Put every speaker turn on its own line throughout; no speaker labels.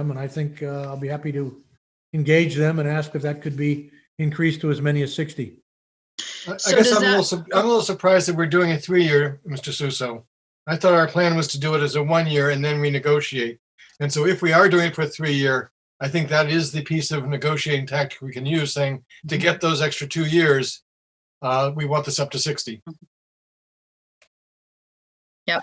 them, and I think uh, I'll be happy to engage them and ask if that could be increased to as many as 60.
I I
So
guess
does
I'm a little,
that-
sup- I'm a little surprised that we're doing a three-year, Mr. Suso. I thought our plan was to do it as a one-year and then renegotiate. And so if we are doing it for three-year, I think that is the piece of negotiating tactic we can use, saying, to
Mm-hmm.
get those extra two years, uh, we want this up to 60.
Yeah,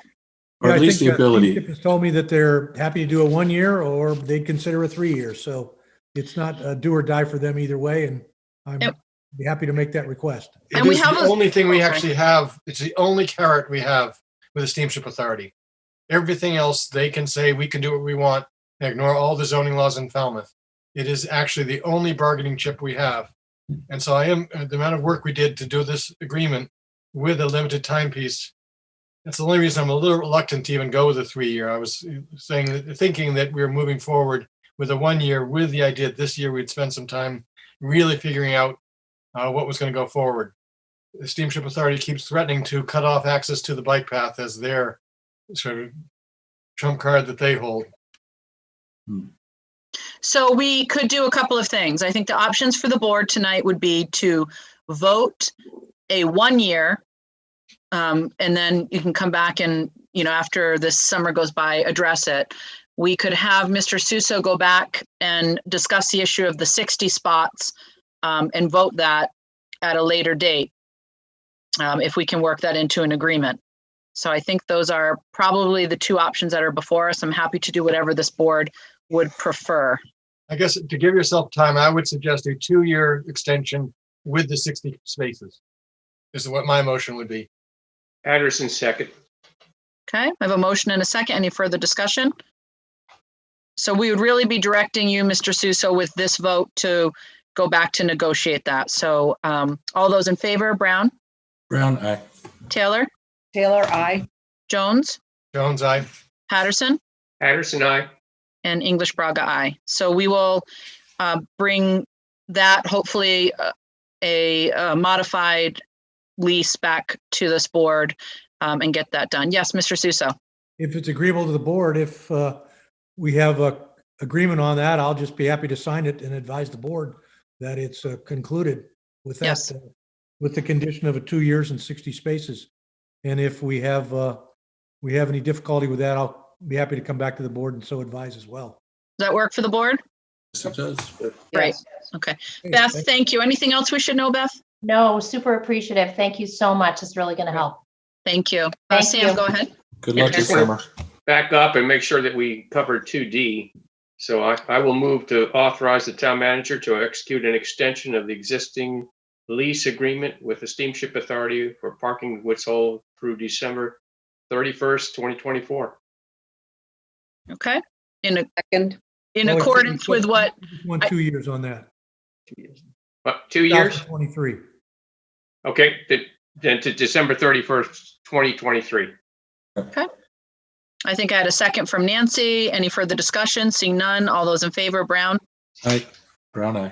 Or
I
at least the
think, uh, Chip
ability.
has told me that they're happy to do a one year or they'd consider a three year. So it's not a do or die for them either way. And I'm
Yep.
be happy to make that request.
It
And we
is
have
the
a-
only thing
oh,
we
sorry.
actually have, it's the only carrot we have with the steamship authority. Everything else, they can say, we can do what we want, and ignore all the zoning laws in Falmouth. It is actually the only bargaining chip we have. And so I am, uh, the amount of work we did to do this agreement with a limited timepiece, that's the only reason I'm a little reluctant to even go with a three-year. I was uh, saying, that- thinking that we were moving forward with a one-year with the idea that this year we'd spend some time really figuring out uh, what was going to go forward the steamship authority keeps threatening to cut off access to the bike path as their sort of trump card that they hold.
So we could do a couple of things. I think the options for the board tonight would be to vote a one-year. Um, and then you can come back and, you know, after this summer goes by, address it. We could have Mr. Suso go back and discuss the issue of the sixty spots um, and vote that at a later date. Um, if we can work that into an agreement. So I think those are probably the two options that are before us. I'm happy to do whatever this board would prefer.
I guess to give yourself time, I would suggest a two-year extension with the 60 spaces. Is what my motion would be.
Anderson, second.
Okay, I have a motion and a second. Any further discussion? So we would really be directing you, Mr. Suso, with this vote to go back to negotiate that. So um, all those in favor, Brown,
Brown eye.
Taylor,
Taylor, I.
Jones,
Jones, I.
Patterson,
Anderson, I.
and English Braga, I. So we will uh, bring that hopefully uh, a uh, modified lease back to this board um, and get that done. Yes, Mr. Suso.
If it's agreeable to the board, if uh, we have a agreement on that, I'll just be happy to sign it and advise the board that it's uh, concluded with that,
Yes.
uh, with the condition of a two years and 60 spaces. And if we have, uh, we have any difficulty with that, I'll be happy to come back to the board and so advise as well.
Does that work for the board?
Yes, it does.
Right.
Yes.
Okay,
Beth,
thank-
thank you. Anything else we should know, Beth?
No, super appreciative. Thank you so much. It's really going to help.
Thank you. Uh,
Thank
Sam,
you.
go ahead.
Good luck this summer.
Back up and make sure that we cover 2D. So I, I will move to authorize the town manager to execute an extension of the existing lease agreement with the steamship authority for parking Woods Hole through December 31st, 2024.
Okay. In, a-
Second.
in
Oh, it's-
accordance with what,
Want two years on that.
But two years?
2023.
Okay, then- then to December 31st, 2023.
I think I had a second from Nancy. Any further discussion? Seeing none. All those in favor, Brown,
Aye. Brown eye.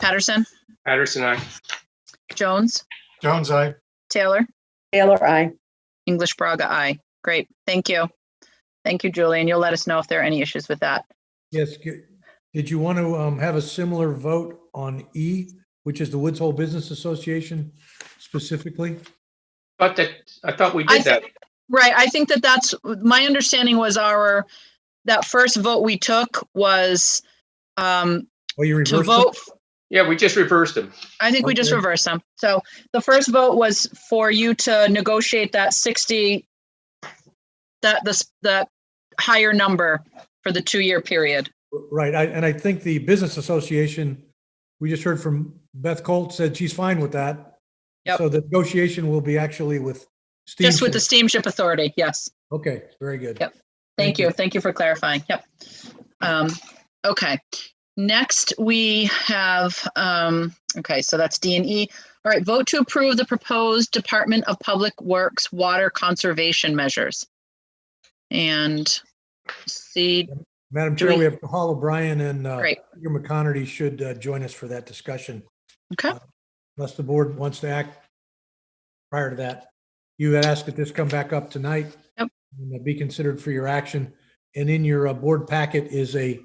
Patterson,
Patterson, I.
Jones,
Jones, I.
Taylor,
Taylor, I.
English Braga, aye. Great. Thank you. Thank you, Julie. And you'll let us know if there are any issues with that.
Yes. g- Did you want to um, have a similar vote on E, which is the Woods Hole Business Association specifically?
But that, I thought we
I
did that.
Right. I think that that's, my understanding was our, that first vote we took was um
Or you
to
reversed it?
vote
Yeah, we just reversed them.
I think we just
Okay.
reversed them. So the first vote was for you to negotiate that sixty, that this, that higher number for the two-year period.
Right. I, and I think the Business Association, we just heard from Beth Colt said she's fine with that.
Yep.
So the negotiation will be actually with Steve.
Just with the steamship authority, yes.
Okay, very good.
Yep.
Thank
Thank
you.
you, thank you for clarifying, yep. Um, okay, next we have, um, okay, so that's D and E. All right, vote to approve the proposed Department of Public Works water conservation measures. And see,
Madam
Do
Chair,
we-
we have Hall O'Brien and uh,
Great.
Peter McConerty should uh, join us for that discussion.
Okay.
Uh, Unless the board wants to act prior to that. You had asked that this come back up tonight.
Yep.
and Be considered for your action. And in your uh, board uh, packet is a